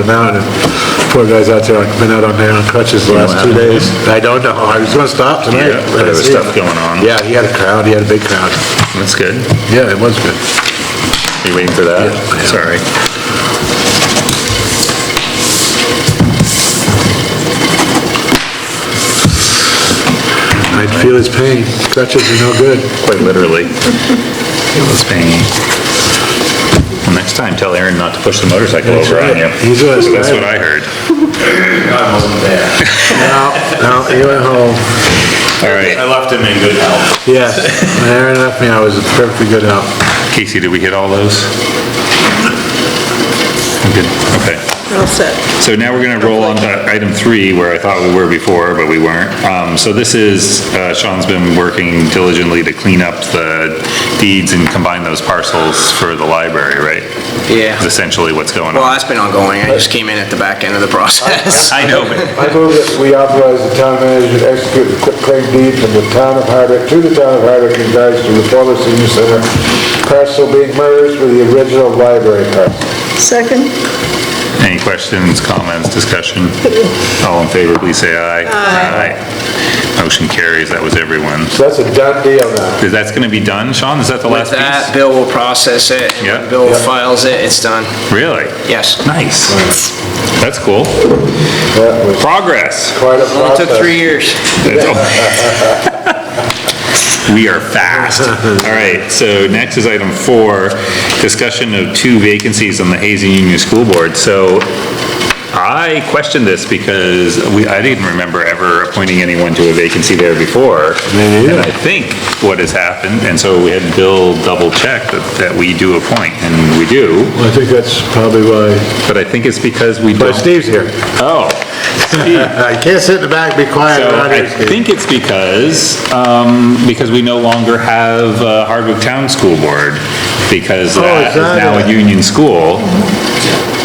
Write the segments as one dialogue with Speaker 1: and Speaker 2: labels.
Speaker 1: The mountain, and poor guy's out there, I've been out on there on crutches the last two days. I don't know, I was gonna stop tonight.
Speaker 2: Yeah, but there was stuff going on.
Speaker 1: Yeah, he had a crowd, he had a big crowd.
Speaker 2: That's good.
Speaker 1: Yeah, it was good.
Speaker 2: Are you waiting for that?
Speaker 1: Yeah.
Speaker 2: Sorry.
Speaker 1: I feel his pain, crutches are no good.
Speaker 2: Quite literally. It was pain. Well, Next time, tell Aaron not to push the motorcycle
Speaker 1: That's
Speaker 2: over on
Speaker 1: right.
Speaker 2: you.
Speaker 1: He's right.
Speaker 2: That's what I heard.
Speaker 3: I wasn't there.
Speaker 1: No, no, he went home.
Speaker 2: All right.
Speaker 3: I left him in good health.
Speaker 1: Yes, when Aaron left me, I was perfectly good out.
Speaker 2: Casey, did we hit all those? I'm Good, okay.
Speaker 4: All set.
Speaker 2: So now we're gonna roll on to item three, where I thought we were before, but we weren't. Um, so this is, uh, Sean's been working diligently to clean up the deeds and combine those parcels for the library, right? Is
Speaker 5: Yeah,
Speaker 2: essentially what's going
Speaker 5: well,
Speaker 2: on.
Speaker 5: that's been ongoing, I just came in at the back end of the process.
Speaker 2: I know, but
Speaker 6: I move that we authorize the town manager to execute the quitclaim deed from the town of Hardwick to the town of Hardwick in regards to the former senior center parcel being merged with the original library parcel.
Speaker 4: Second?
Speaker 2: Any questions, comments, discussion? All in favor, please say aye. Aye. Motion carries, that was everyone.
Speaker 6: So that's a done deal now.
Speaker 2: Is that's gonna be done, Sean? Is that the
Speaker 5: With
Speaker 2: last
Speaker 5: that,
Speaker 2: piece?
Speaker 5: Bill will process it, and
Speaker 2: Yeah.
Speaker 5: when Bill files it, it's done,
Speaker 2: Really?
Speaker 5: yes.
Speaker 2: Nice. That's cool.
Speaker 6: That was
Speaker 2: Progress.
Speaker 6: quite a
Speaker 5: Only
Speaker 6: process.
Speaker 5: took three years.
Speaker 2: We are fast. All right, so next is item four, discussion of two vacancies on the Hazen Union School Board. So I questioned this because we, I didn't remember ever appointing anyone to a vacancy there before.
Speaker 1: Me neither.
Speaker 2: And I think what has happened, and so we had Bill double check that, that we do appoint, and we do,
Speaker 1: Well, I think that's probably why,
Speaker 2: but I think it's because we
Speaker 1: but
Speaker 2: don't.
Speaker 1: Steve's here.
Speaker 2: Oh.
Speaker 1: I can't sit in the back, be quiet.
Speaker 2: So
Speaker 1: around
Speaker 2: I
Speaker 1: here, Steve.
Speaker 2: think it's because, um, because we no longer have uh, Hardwick Town School Board, because
Speaker 1: Oh,
Speaker 2: that
Speaker 1: is
Speaker 2: is
Speaker 1: that
Speaker 2: now
Speaker 1: it?
Speaker 2: a union school.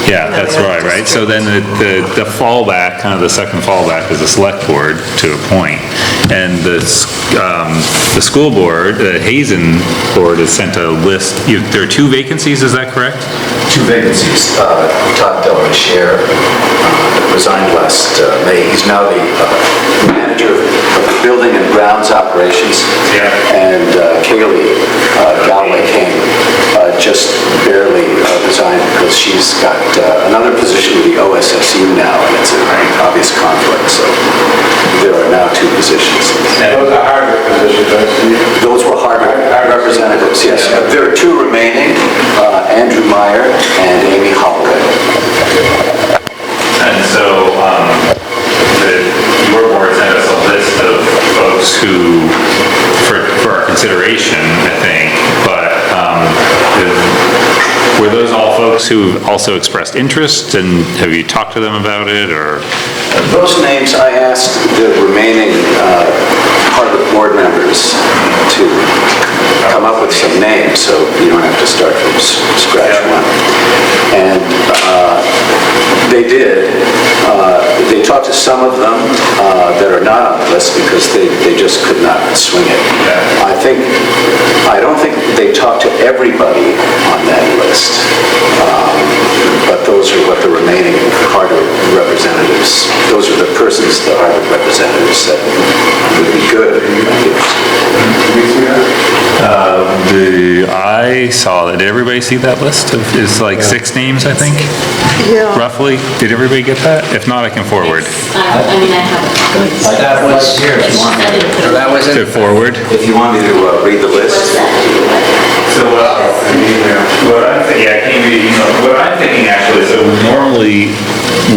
Speaker 2: Yeah, that's right, right? So then the, the the fallback, kind of the second fallback is the select board to a point. And the, s- um, the school board, the Hazen Board has sent a list, you- there are two vacancies, is that correct?
Speaker 7: two vacancies. Uh, Todd Delarichère uh, resigned last uh, May. He's now the uh, manager of building and grounds operations.
Speaker 2: Yeah.
Speaker 7: And uh, Kaylee uh, Galway King uh, just barely uh, resigned because she's got uh, another position with the OSSU E now, and it's an obvious conflict, so there are now two positions.
Speaker 6: Those are Hardwick positions, right, Steve?
Speaker 7: Those were Harvard representatives, yes. There are two remaining, uh, Andrew Meyer and Amy Holloway.
Speaker 2: And so, um, the, your board sent us a list of folks who, for, for our consideration, I think, but, um, the- were those all folks who also expressed interest, and have you talked to them about it, or?
Speaker 7: Those names, I asked the remaining uh, Harvard board members to come up with some names, so you don't have to start from s- scratch one. And uh, they did. Uh, They talked to some of them uh, that are not on the list because they, they just could not swing it.
Speaker 2: Yeah.
Speaker 7: I think, I don't think they talked to everybody on that list, Um, but those are what the remaining Harvard representatives, those are the persons, the Harvard representatives that would be good. I think.
Speaker 2: The, I saw, did everybody see that list of, is like six names, I think,
Speaker 4: Yeah.
Speaker 2: roughly? Did everybody get that? If not, I can forward.
Speaker 8: Uh, I mean, I have.
Speaker 7: Like that was here, if you want.
Speaker 8: It's-
Speaker 5: So that was
Speaker 2: To
Speaker 5: it,
Speaker 2: forward?
Speaker 7: If you want me to uh, read the
Speaker 8: What's
Speaker 7: list,
Speaker 8: that?
Speaker 2: So what I- I mean, uh, what I'm thinking, yeah, I can't read, you know, what I'm thinking actually, so normally,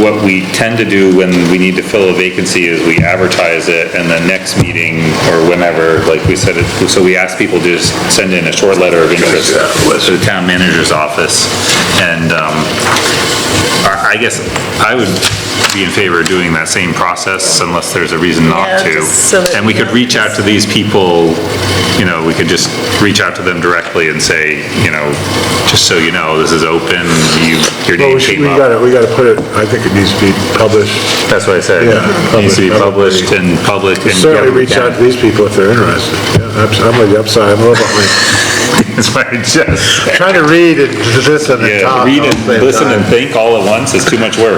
Speaker 2: what we tend to do when we need to fill a vacancy is we advertise it, and the next meeting, or whenever, like we said, it- so we ask people to just send in a short letter of interest to the town manager's office, and, um, I I guess I would be in favor of doing that same process unless there's a reason not
Speaker 4: Yeah,
Speaker 2: to.
Speaker 4: just so that
Speaker 2: And we
Speaker 4: you
Speaker 2: could
Speaker 4: know.
Speaker 2: reach out to these people, you know, we could just reach out to them directly and say, you know, just so you know, this is open, you, your
Speaker 1: Well,
Speaker 2: name
Speaker 1: we should, we
Speaker 2: came up.
Speaker 1: gotta, we gotta put it, I think it needs to be published.
Speaker 2: That's what I said.
Speaker 1: Yeah.
Speaker 2: Needs to be
Speaker 1: Public.
Speaker 2: published and public and.
Speaker 1: Certainly
Speaker 2: yeah, we
Speaker 1: reach
Speaker 2: can.
Speaker 1: out to these people if they're interested. Yeah, I'm I'm with you, I'm sorry, I'm a little behind.
Speaker 2: That's why I just,
Speaker 1: Trying to read and listen and
Speaker 2: yeah,
Speaker 1: talk.
Speaker 2: read
Speaker 1: all at
Speaker 2: and
Speaker 1: the same
Speaker 2: listen
Speaker 1: time.
Speaker 2: and think all at once is too much work.